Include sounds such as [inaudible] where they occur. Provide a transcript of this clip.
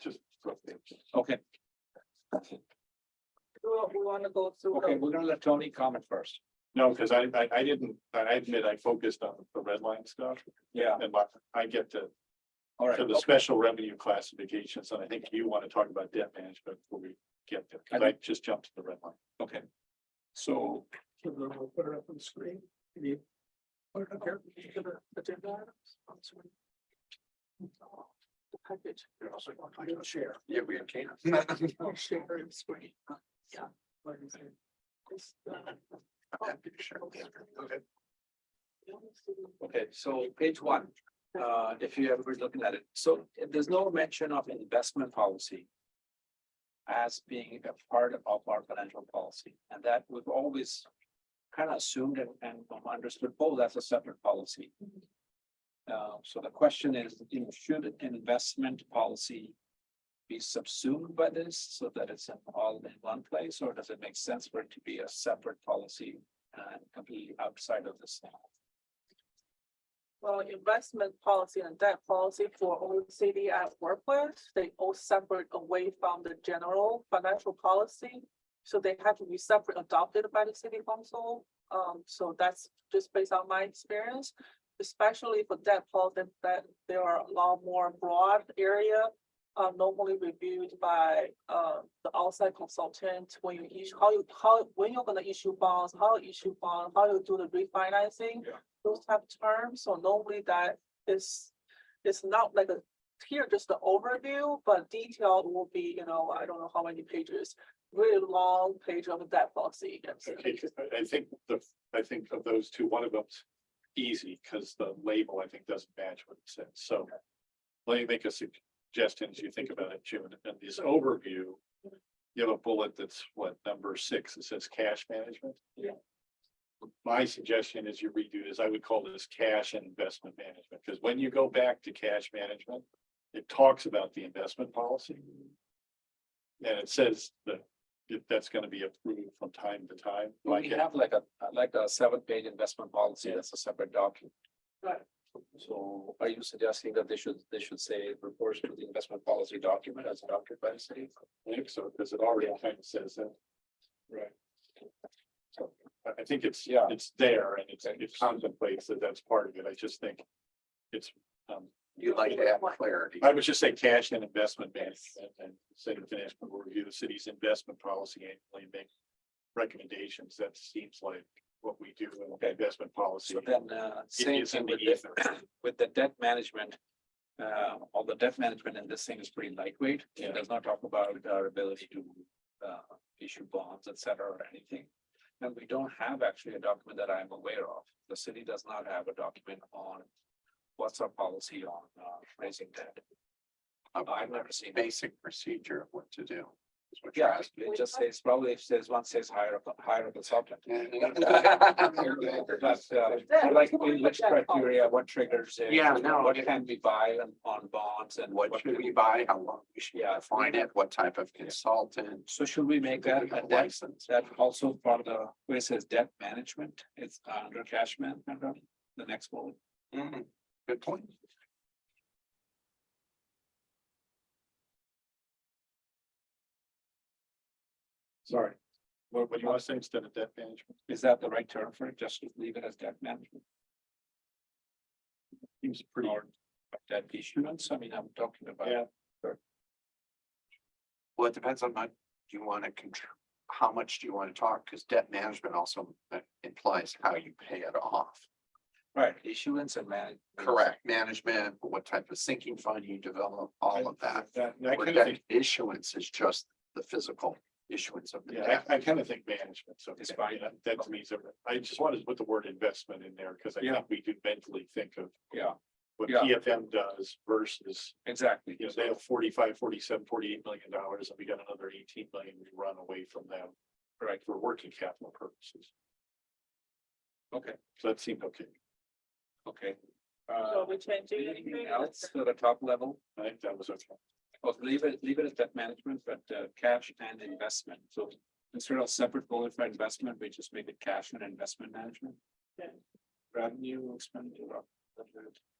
just. Okay, Well, we wanna go through. okay, the- we're gonna let Tony comment first. No, because I, I, I didn't, I admit I focused on the red line stuff. Yeah. And like, I get to, All right, to the okay. special revenue classifications, and I think you want to talk about debt management before we get there, because I just jumped to the red line. okay, So. Can we put it up on the screen? Can you Put it up here. Give it agenda items on the screen? the Package. You're also going to like to share. Yeah, we can. Oh, share and screen. Yeah. This, uh, Happy to share. Okay. okay, so page one, uh, if you ever looking at it, so there's no mention of investment policy. As being a part of our financial policy, and that we've always kind of assumed and, and understood, oh, that's a separate policy. Uh, so the question is, you know, should an investment policy be subsumed by this so that it's in- all in one place, or does it make sense for it to be a separate policy? And completely outside of this Well, investment policy and debt policy for OECD I work with, they all separate away from the general financial policy. So they have to be separate adopted by the city council. Um, so that's just based on my experience. Especially for debt policy, that there are a lot more broad area. Uh, normally reviewed by, uh, the outside consultant when you issue, how you, how, when you're gonna issue bonds, how you issue bond, how you do the refinancing those type of terms, so normally that is, it's not like a, here just the overview, but detailed will be, you know, I don't know how many pages. Really long page of that policy. yes. Okay, 'cause I- I think the, I think of those two, one of them's easy, because the label, I think, doesn't match what it says, so. Let me make a suggestion as you think about it, June, and this overview. You have a bullet that's what, number six, it says cash management? Yeah. My suggestion is you redo this, I would call this cash and investment management, because when you go back to cash management, it talks about the investment policy. And it says that if that's gonna be approved from time to time, like, We have like a, like a seven page investment policy, that's a separate document. Right. So are you suggesting that they should, they should say reports to the investment policy document as adopted by the city? so, because it already kind of says that. Right. So, I, I think it's, Yeah. it's there and it's, Okay. it contemplates that that's part of it, I just think it's, um, You'd like to have clarity. I would just say cash and investment management and say the financial will review the city's investment policy annually and make recommendations, that seems like what we do in investment policy. So then, uh, same is in thing the with the, ether. with the debt management. Uh, all the debt management in this thing is pretty lightweight, Yeah. it does not talk about our ability to, uh, issue bonds, et cetera, or anything. And we don't have actually a document that I'm aware of, the city does not have a document on what's our policy on, uh, raising debt. I've never seen. it. Basic procedure of what to do. is what you're Yeah, asking. it just says, probably it says, one says hire, a- hire a consultant. [laughs] But, uh, Yeah, Like, we in can which look at that. criteria, what triggers it? Yeah, no, What yeah. can we buy on, on bonds and What should we buy? How long we should Yeah. define it? What type of consultant? So should we make that a debt, License. that also part of the, where it says debt management, it's under cash management, right? the next bullet. Mm-hmm, Mhm. Good point. Sorry. What, what do you want to say instead of debt management? Is that the right term for it? Just leave it as debt management? Seems pretty. Or debt issuance, I mean, I'm talking about. Yeah. Well, it depends on what you want to control, how much do you want to talk? Because debt management also uh, implies how you pay it off. Right, issuance and manage. Correct, management, what type of sinking fund you develop, all of that. I Where kind of think, debt Issuance is just the physical issuance of the yeah, debt. I, I kind of think management, so. It's fine. That to me is, everything. I just wanted to put the word investment in there because I Yeah. think we do mentally think of Yeah, what Yeah. PFM does versus, exactly. you know, they have forty-five, forty-seven, forty-eight million dollars and we got another eighteen million we run away from them. Right. For working capital purposes. Okay. So that seemed okay. Okay. So Uh, we change it. anything else to the top level? I think that was okay. Well, leave it, leave it as debt management, but uh, cash and investment, so instead of separate bullet for investment, we just make it cash and investment management. Yeah. Revenue expenditure. uh,